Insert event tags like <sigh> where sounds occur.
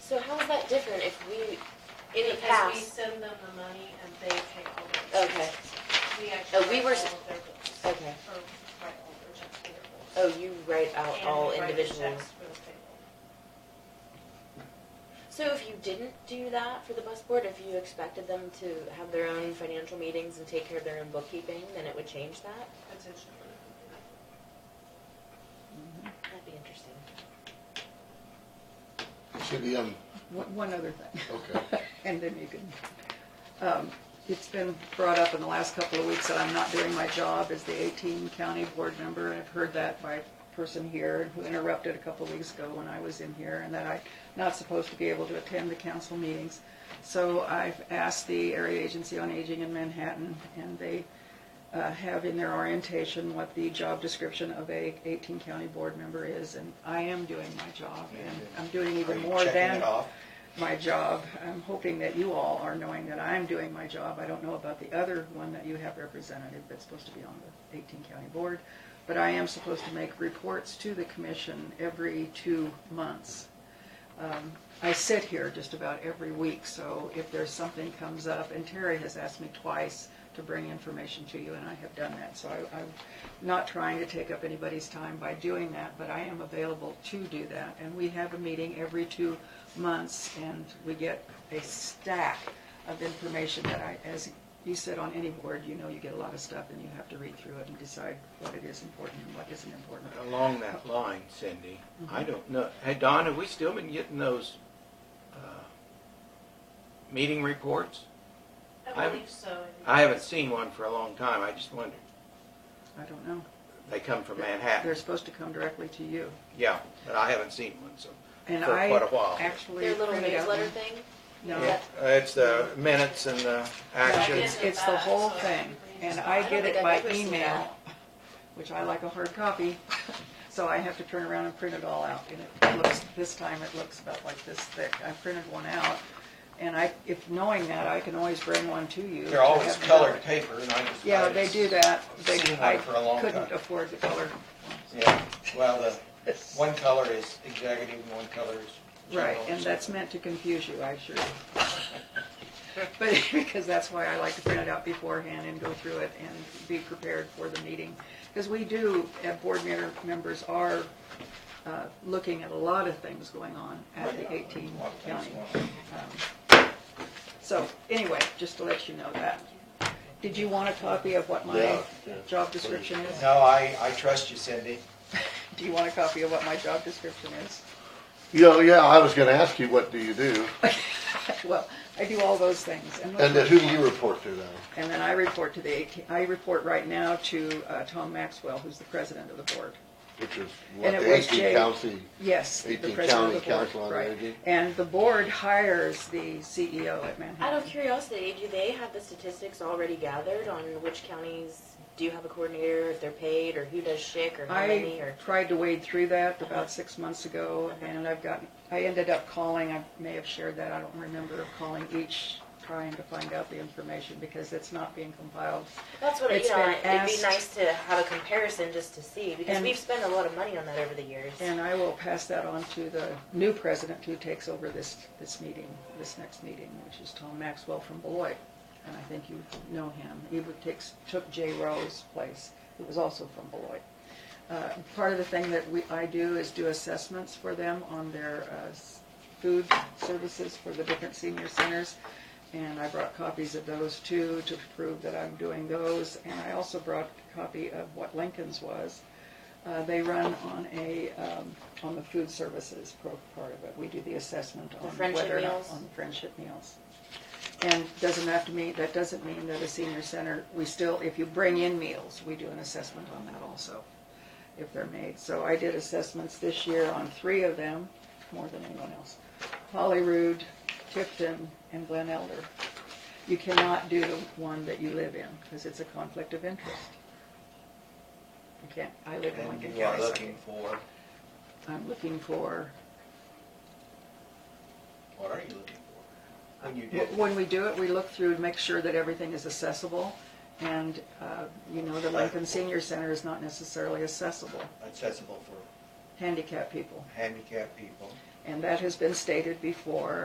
that different if we, in the Because we past? send them the money and they pay all their Okay, Oh, we We actually were write s- all of their bills. okay. Or write all their checks for their bills. Oh, you write out And all we write the individual. checks for the payroll. So if you didn't do that for the bus board, if you expected them to have their own financial meetings and take care of their own bookkeeping, then it would change that? Potentially. That'd be interesting. Should be, um, One, one other thing. Okay. <laughs> And then you can, um, it's been brought up in the last couple of weeks that I'm not doing my job as the eighteen county board member. I've heard that by a person here who interrupted a couple of weeks ago when I was in here and that I'm not supposed to be able to attend the council meetings. So I've asked the Area Agency on Aging in Manhattan and they, uh, have in their orientation what the job description of a eighteen county board member is. And I am doing my job and I'm doing Are even you more checking than it off? my job. I'm hoping that you all are knowing that I'm doing my job. I don't know about the other one that you have representative that's supposed to be on the 18 county board, but I am supposed to make reports to the commission every two months. Um, I sit here just about every week, so if there's something comes up, and Terry has asked me twice to bring information to you, and I have done that, so I, I'm not trying to take up anybody's time by doing that, but I am available to do that, and we have a meeting every two months, and we get a stack of information that I, as you said on any board, you know you get a lot of stuff, and you have to read through it and decide what it is important and what isn't important. Along that line, Cindy, I don't know, hey, Don, have we still been getting those, uh, meeting reports? I I- believe so. I haven't seen one for a long time, I just wondered. I don't know. They come from They're Manhattan, supposed to come directly to you. yeah, but I haven't seen one, so. And For I quite a while. actually Their little printed out newsletter one. thing? No, Yeah, It's the minutes and uh, the actions. it's, it's the whole thing, and I get it by email, which I like a hard <laughs> copy, so I have to turn around and print it all out, and it looks, this time it looks about like this thick. I printed one out, and I, if knowing that, I can always bring one to you. They're always to have colored it. paper, and I just. Yeah, I they just- do that. They, Seen one I for a long couldn't time. afford the color. Yeah, well, the, one color is executive and one color is. Right, general. and that's meant to confuse you, I sure. But, <laughs> because that's why I like to print it out beforehand and go through it and be prepared for the meeting. Because we do, uh, board member- members are uh, looking at a lot of things going on at the 18 county. um, So, anyway, just to let you know that. Did you want a copy of what my Yeah, yeah, job description is? No, I, I trust you, Cindy. Do you want a copy of what my job description is? <laughs> Yeah, yeah, I was gonna ask you, what do you do? Well, I do all those things. And then who do you report to now? And then I report to the 18, I report right now to uh, Tom Maxwell, who's the president of the board. Which is what And it the was eighteen Jay. county, Yes, the 18 county president of the board, council on right. energy. And the board hires the CEO at Out of Manhattan. curiosity, do they have the statistics already gathered on which counties do you have a coordinator, if they're paid, or who does shick, or how many, I or? tried to wade through that about six months ago, and I've gotten, I ended up calling, I may have shared that, I don't remember, calling each, trying to find out the information, because it's not being compiled. That's what, you It's know, been it'd be asked- nice to have a comparison just to see, because And- we've spent a lot of money on that over the years. And I will pass that on to the new president who takes over this, this meeting, this next meeting, which is Tom Maxwell from Beloit. And I think you know him. He would takes, took Jay Rowe's place, who was also from Beloit. Uh, part of the thing that we, I do is do assessments for them on their, uh, s- food services for the different senior centers. And I brought copies of those too, to prove that I'm doing those. And I also brought a copy of what Lincoln's was. Uh, They run on a, um, on the food services pro- part of it. We do the assessment on friendship whether or not, meals? on friendship meals. And doesn't have to mean, that doesn't mean that a senior center, we still, if you bring in meals, we do an assessment on that also, if they're made. So I did assessments this year on three of them, more than anyone else. Holyrood, Tifton, and Glen Elder. You cannot do the one that you live in, because it's a conflict of interest. You can't, I live in Lincoln And you are County. so I looking for, can't- I'm looking for, what are you looking for? When you do. wh- when we do it, we look through to make sure that everything is accessible, and, uh, you know, the Lincoln Senior Center is not necessarily accessible, accessible for handicapped people. handicapped people. And that has been stated before,